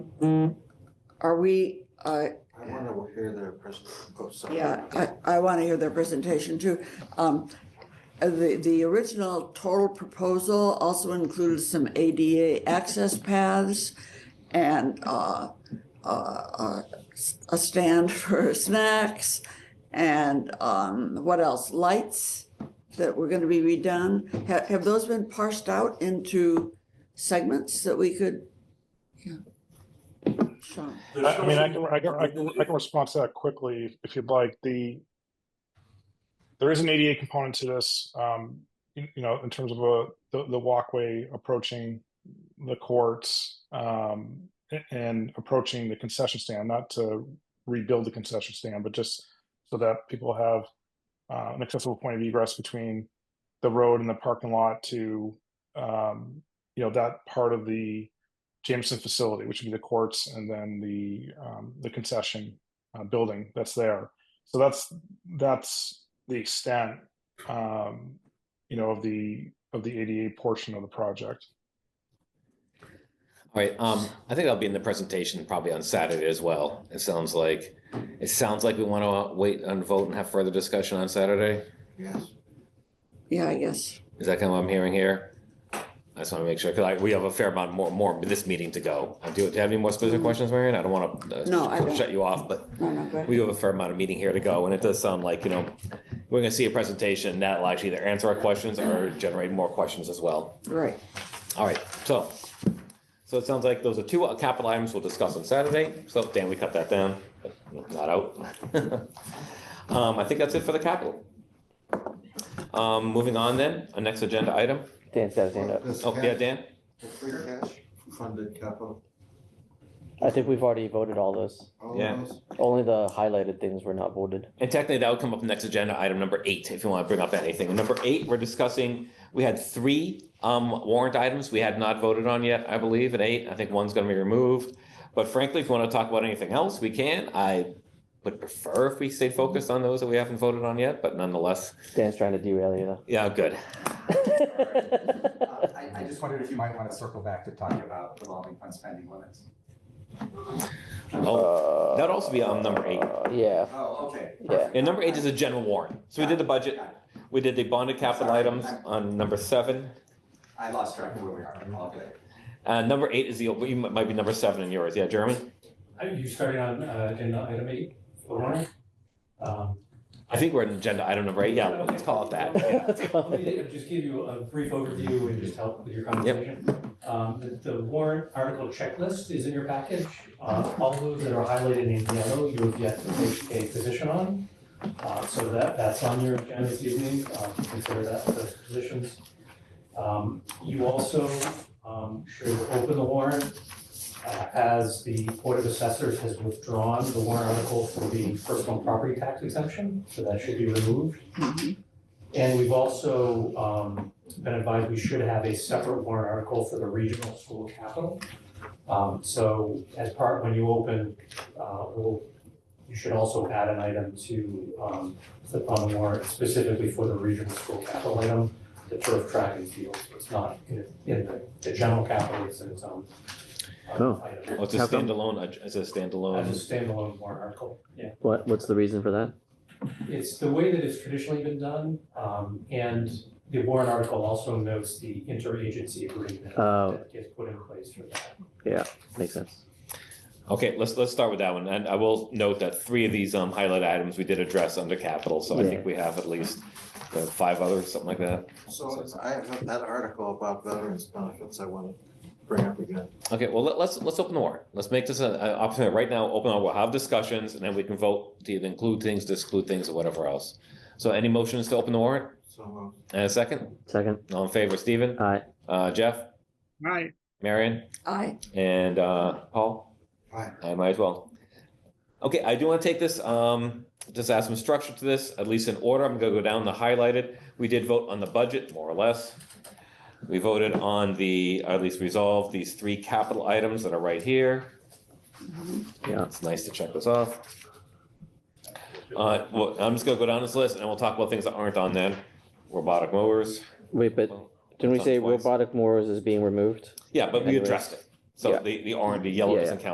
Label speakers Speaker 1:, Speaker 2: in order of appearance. Speaker 1: Are we, uh,
Speaker 2: I want to hear their presentation. Oh, sorry.
Speaker 1: yeah, I, I want to hear their presentation too. Um, uh, The, the original total proposal also included some ADA access paths and uh, uh, uh, s- a stand for snacks and um, what else? Lights that were going to be redone. Have, have those been parsed out into segments that we could? Yeah. Sean?
Speaker 3: I I mean, I can, I can, I can, I can respond to that quickly if- if you'd like. The there is an ADA component to this, um, you, you know, in terms of a, the, the walkway approaching the courts um, a- and approaching the concession stand. Not to rebuild the concession stand, but just so that people have uh, an accessible point of egress between the road and the parking lot to um, you know that part of the Jameson facility, which would be the courts and then the um, the concession uh, building that's there. So that's that's the extent, um, you know, of the of the ADA portion of the project.
Speaker 4: All right, um, I think I'll be in the presentation probably on Saturday as well. It sounds like, it sounds like we want to wait and vote and have further discussion on Saturday.
Speaker 2: Yes.
Speaker 1: Yeah, I guess.
Speaker 4: Is that kind of what I'm hearing here? I just want to make sure, because I, we have a fair amount more, more of this meeting to go. Uh, Do you do you have any more specific questions, Marion? I don't want
Speaker 1: No, I
Speaker 4: to
Speaker 1: don't.
Speaker 4: shut you off, but
Speaker 1: No, no, go ahead.
Speaker 4: we have a fair amount of meeting here to go, and it does sound like, you know, we're going to see a presentation that'll actually either answer our questions or generate more questions as well.
Speaker 1: Right.
Speaker 4: All right, so, so it sounds like those are two capital items we'll discuss on Saturday. So Dan, we cut that down, but not out. Um, I think that's it for the capital. Um, moving on then, our next agenda item.
Speaker 5: Dan's got his hand up.
Speaker 2: This
Speaker 4: Oh, yeah,
Speaker 2: cash-
Speaker 4: Dan?
Speaker 2: the Free cash funded capital.
Speaker 5: I think we've already voted all those.
Speaker 2: all of
Speaker 4: Yeah.
Speaker 2: those?
Speaker 5: Only the highlighted things were not voted.
Speaker 4: And technically, that would come up next agenda, item number eight, if you want to bring up anything. Number eight, we're discussing, we had three um, warrant items we had not voted on yet, I believe, at eight. I think one's going to be removed. But frankly, if you want to talk about anything else, we can. I would prefer if we stay focused on those that we haven't voted on yet, but nonetheless,
Speaker 5: Dan's trying to derail you though.
Speaker 4: yeah, good.
Speaker 6: Uh, I, I just wondered if you might want to circle back to talking about revolving fund spending limits.
Speaker 4: Oh, That'd also be on number eight.
Speaker 5: Uh, Yeah,
Speaker 6: Oh, okay.
Speaker 5: Yeah.
Speaker 4: And number eight is a general warrant. So we did the budget, we did the bonded capital items on number seven.
Speaker 6: I lost track of where we are, all good.
Speaker 4: Uh, Number eight is the, you might be number seven in yours. Yeah, Jeremy?
Speaker 7: Are you starting on uh, agenda item eight, the warrant? Um,
Speaker 4: I think we're in agenda item number eight. Yeah, let's call it that. Yeah.
Speaker 5: Let's call
Speaker 7: Let me just give you a brief overview and just help with your conversation. Um, the- The warrant article checklist is in your package. Uh, All those that are highlighted in yellow, you have yet to take a position on. Uh, So that, that's on your agenda this evening. Uh, Consider that those positions. Um, You also um, should open the warrant uh, as the Board of Assessors has withdrawn the warrant article for the personal property tax exemption, so that should be removed. And we've also um, been advised we should have a separate warrant article for the regional school capital. Um, So as part, when you open, uh, we'll, you should also add an item to um, the fund warrant specifically for the regional school capital item, the turf track and field. So It's not in in the, the general capital, it's in its own uh,
Speaker 5: Oh.
Speaker 7: item.
Speaker 4: Oh, it's a
Speaker 5: How come?
Speaker 4: standalone, it's a standalone.
Speaker 7: As a standalone warrant article. Yeah.
Speaker 5: What, what's the reason for that?
Speaker 7: It's the way that it's traditionally been done, um, and the warrant article also notes the interagency agreement
Speaker 5: Oh.
Speaker 7: that gets put in place for that.
Speaker 5: Makes sense.
Speaker 4: Okay, let's, let's start with that one. And I will note that three of these um, highlight items we did address under capital, so I think we have at least uh, five others, something like that.
Speaker 2: So I have that article about veterans benefits I want to bring up again.
Speaker 4: Okay, well, let- let's, let's open the warrant. Let's make this an an opportunity. Right now, open, our- we'll have discussions, and then we can vote to either include things, exclude things, or whatever else. So any motions to open the warrant?
Speaker 2: So moved.
Speaker 4: And a second?
Speaker 5: Second,
Speaker 4: All in favor, Stephen?
Speaker 5: aye,
Speaker 4: Uh, Jeff?
Speaker 3: Right.
Speaker 4: Marion?
Speaker 1: I,
Speaker 4: And uh, Paul?
Speaker 2: Aye.
Speaker 4: I might as well. Okay, I do want to take this, um, just add some structure to this, at least in order. I'm gonna go down the highlighted. We did vote on the budget, more or less. We voted on the, or at least resolved these three capital items that are right here.
Speaker 5: Yeah.
Speaker 4: It's nice to check this off. Uh, well, I'm just gonna go down this list and we'll talk about things that aren't on then. Robotic mowers.
Speaker 5: wait, but didn't we
Speaker 4: It's on
Speaker 5: say
Speaker 4: twice.
Speaker 5: robotic mowers is being removed?
Speaker 4: Yeah, but we addressed it. So
Speaker 5: Yeah.
Speaker 4: the, the orange, the yellow
Speaker 5: Yeah,
Speaker 4: doesn't count